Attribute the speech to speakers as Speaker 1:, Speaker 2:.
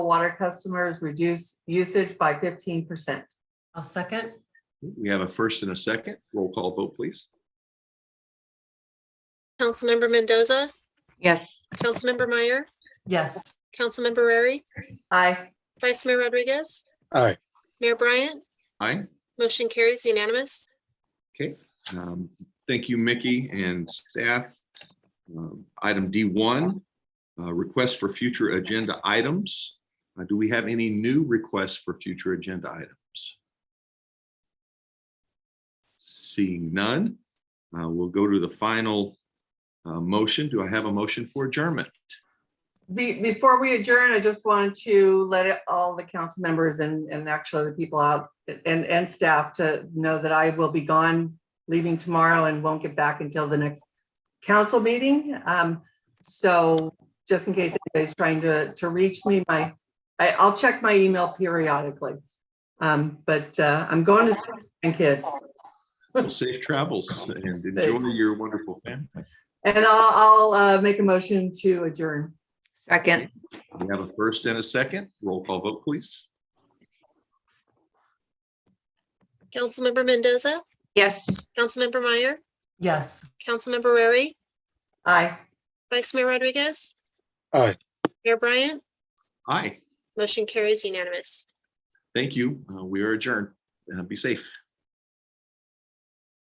Speaker 1: water customers reduce usage by fifteen percent.
Speaker 2: I'll second.
Speaker 3: We have a first and a second. Roll call vote, please.
Speaker 4: Councilmember Mendoza,
Speaker 5: Yes.
Speaker 4: Councilmember Meyer,
Speaker 2: Yes,
Speaker 4: Councilmember Rary,
Speaker 1: Aye.
Speaker 4: Vice Mayor Rodriguez,
Speaker 6: Aye.
Speaker 4: Mayor Bryant,
Speaker 3: Aye.
Speaker 4: motion carries unanimous.
Speaker 3: Um, Thank you, Mickey and staff. Um, Item D1, uh, request for future agenda items. Uh, Do we have any new requests for future agenda items? Seeing none, uh, we'll go to the final uh, motion. Do I have a motion for adjournment?
Speaker 1: Be- before we adjourn, I just wanted to let it- all the council members and, and actually the people out and, and staff to know that I will be gone, leaving tomorrow and won't get back until the next council meeting. Um, so just in case anybody's trying to, to reach me, my, I, I'll check my email periodically. Um, but, uh, I'm going to see my kids
Speaker 3: Safe travels and enjoy your wonderful family.
Speaker 1: and I'll, I'll, uh, make a motion to adjourn.
Speaker 5: Second.
Speaker 3: We have a first and a second. Roll call vote, please.
Speaker 4: Councilmember Mendoza,
Speaker 5: Yes.
Speaker 4: Councilmember Meyer,
Speaker 2: yes.
Speaker 4: Councilmember Rary,
Speaker 1: Aye.
Speaker 4: Vice Mayor Rodriguez,
Speaker 6: Aye.
Speaker 4: Mayor Bryant,
Speaker 3: Aye.
Speaker 4: motion carries unanimous.
Speaker 3: Thank you. Uh, We are adjourned. Uh, Be safe.